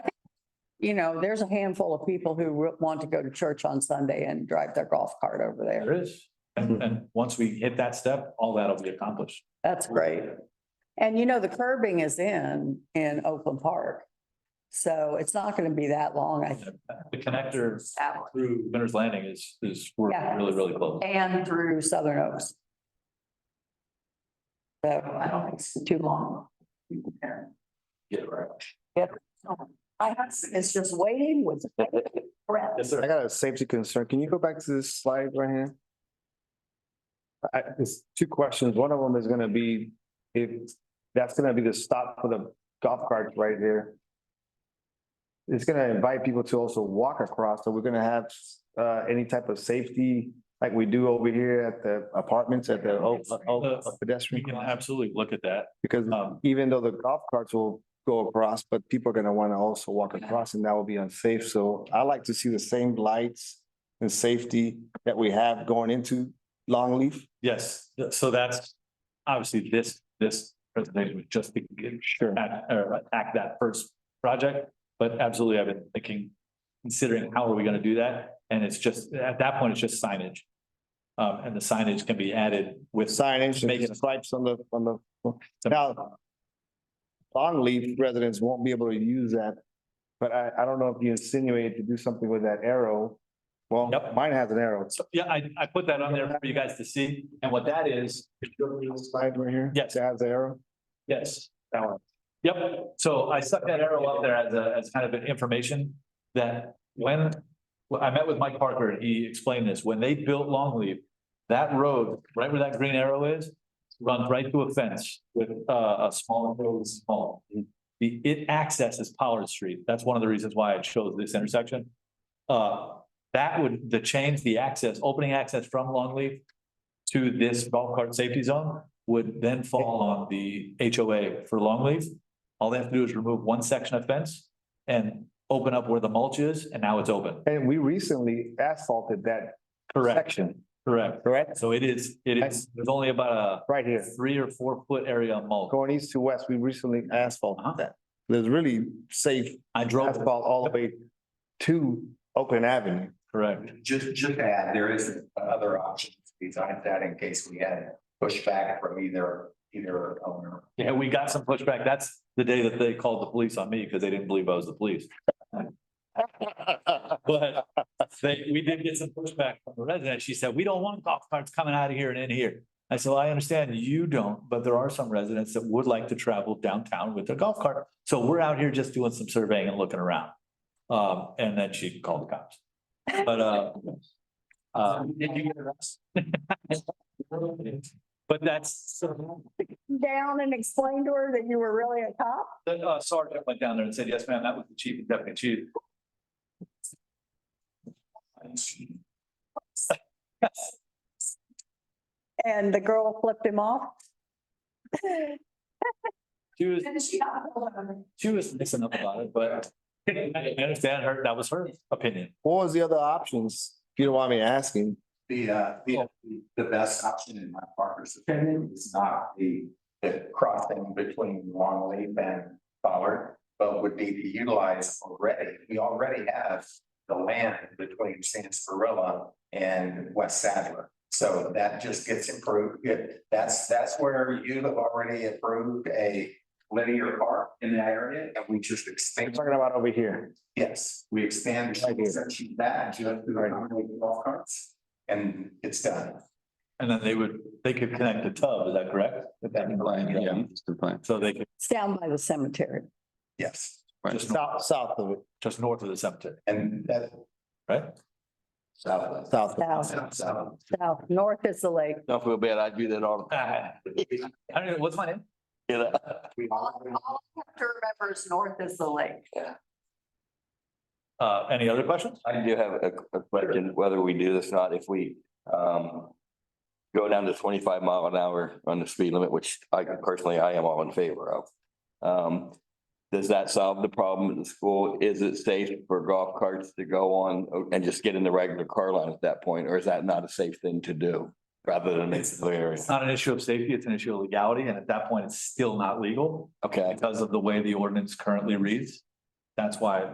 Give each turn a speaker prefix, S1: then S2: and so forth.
S1: you know, there's a handful of people who re- want to go to church on Sunday and drive their golf cart over there.
S2: There is. And, and once we hit that step, all that'll be accomplished.
S1: That's great. And you know, the curbing is in, in Oakland Park. So it's not going to be that long, I think.
S2: The connector through Winter's Landing is, is, we're
S1: Yeah.
S2: really, really close.
S1: And through Southern Oaks. So I don't think it's too long.
S2: Yeah, right.
S1: My husband is just waiting with breath.
S2: Yes,
S3: I
S2: sir.
S3: got a safety concern. Can you go back to this slide right here? I, it's two questions. One of them is gonna be, if, that's gonna be the stop for the golf carts right here. It's gonna invite people to also walk across, so we're gonna have, uh, any type of safety like we do over here at the apartments at the O- O- O-
S2: We
S3: pedestrian.
S2: can absolutely look at that.
S3: Because
S2: Um,
S3: even though the golf carts will go across, but people are gonna wanna also walk across and that will be unsafe. So I like to see the same lights and safety that we have going into Longleaf.
S2: yes, so that's, obviously, this, this presentation was just to give
S3: Sure.
S2: act, or attack that first project. But absolutely, I've been thinking, considering how are we gonna do that? And it's just, at that point, it's just signage. Um, and the signage can be added with.
S3: Signage
S2: Make
S3: and
S2: it-
S3: stripes on the, on the, now. Longleaf residents won't be able to use that, but I, I don't know if you insinuate to do something with that arrow. Well,
S2: Yep.
S3: mine has an arrow.
S2: So, yeah, I, I put that on there for you guys to see. And what that is,
S3: Slide right here.
S2: Yes.
S3: It has the arrow.
S2: Yes, that one. Yep, so I stuck that arrow up there as a, as kind of an information that when, well, I met with Mike Parker, and he explained this, when they built Longleaf, that road, right where that green arrow is, runs right through a fence with uh, a small, road, small. The, it accesses Pollard Street. That's one of the reasons why I chose this intersection. Uh, that would, the change, the access, opening access from Longleaf to this golf cart safety zone would then fall on the HOA for Longleaf. All they have to do is remove one section of fence and open up where the mulch is, and now it's open.
S3: And we recently asphalted that
S2: Correct,
S3: section,
S2: correct.
S3: correct?
S2: So it is, it is, there's only about
S3: Right
S2: a
S3: here.
S2: three or four foot area of mulch.
S3: going east to west, we recently
S2: Uh-huh.
S3: asphalted that. There's really safe
S2: I drove, it.
S3: asphalt all the way to Oakland Avenue.
S2: correct,
S4: Just, just to add, there is another option besides that in case we had pushback from either, either owner.
S2: yeah, we got some pushback, that's the day that they called the police on me, because they didn't believe I was the police. But they, we did get some pushback from the resident. She said, we don't want golf carts coming out of here and in here. I said, well, I understand you don't, but there are some residents that would like to travel downtown with their golf cart. So we're out here just doing some surveying and looking around. Um, and then she called the cops. But, uh, uh,
S4: Did you get arrested?
S2: but that's,
S1: Down and explain to her that you were really a cop?
S2: the uh, sergeant went down there and said, yes, ma'am, that was the chief and deputy chief.
S1: And the girl flipped him off?
S2: She was,
S1: And she got a hold of him.
S2: she was missing up about it, but I understand her, that was her opinion.
S3: What was the other options? If you don't mind me asking,
S4: The, uh, the, the best option in my partner's opinion is not the, the crossing between Longleaf and Ballard, but would be to utilize already, we already have the land between Sansparilla and West Sadler. So that just gets improved. It- That's, that's where you have already approved a linear park in that area, and we just
S3: I'm
S4: expand,
S3: talking about over here.
S4: yes, we expand
S3: Right here.
S4: section that just to accommodate golf carts, and it's done.
S2: And then they would, they could connect the tub, is that correct? Yeah. So they could,
S1: It's down by the cemetery.
S4: Yes,
S2: just, north-
S3: South, south of it,
S2: just north of the cemetery,
S4: and that.
S2: right?
S4: Southwest.
S3: south. of it.
S1: South, south, north is the lake.
S5: Don't feel bad. I do that all the
S2: Ah, I don't know, what's my name?
S5: time.
S1: All all I have to remember is north is the lake.
S2: Uh, any other questions?
S5: I do have a, a question, whether we do this or not, if we, um, go down to twenty-five mile an hour on the speed limit, which I personally, I am all in favor of. Um, does that solve the problem at the school? Is it safe for golf carts to go on and just get in the regular car line at that point? Or is that not a safe thing to do rather than make the area?
S2: It's not an issue of safety, it's an issue of legality, and at that point, it's still not legal
S5: Okay.
S2: because of the way the ordinance currently reads. That's why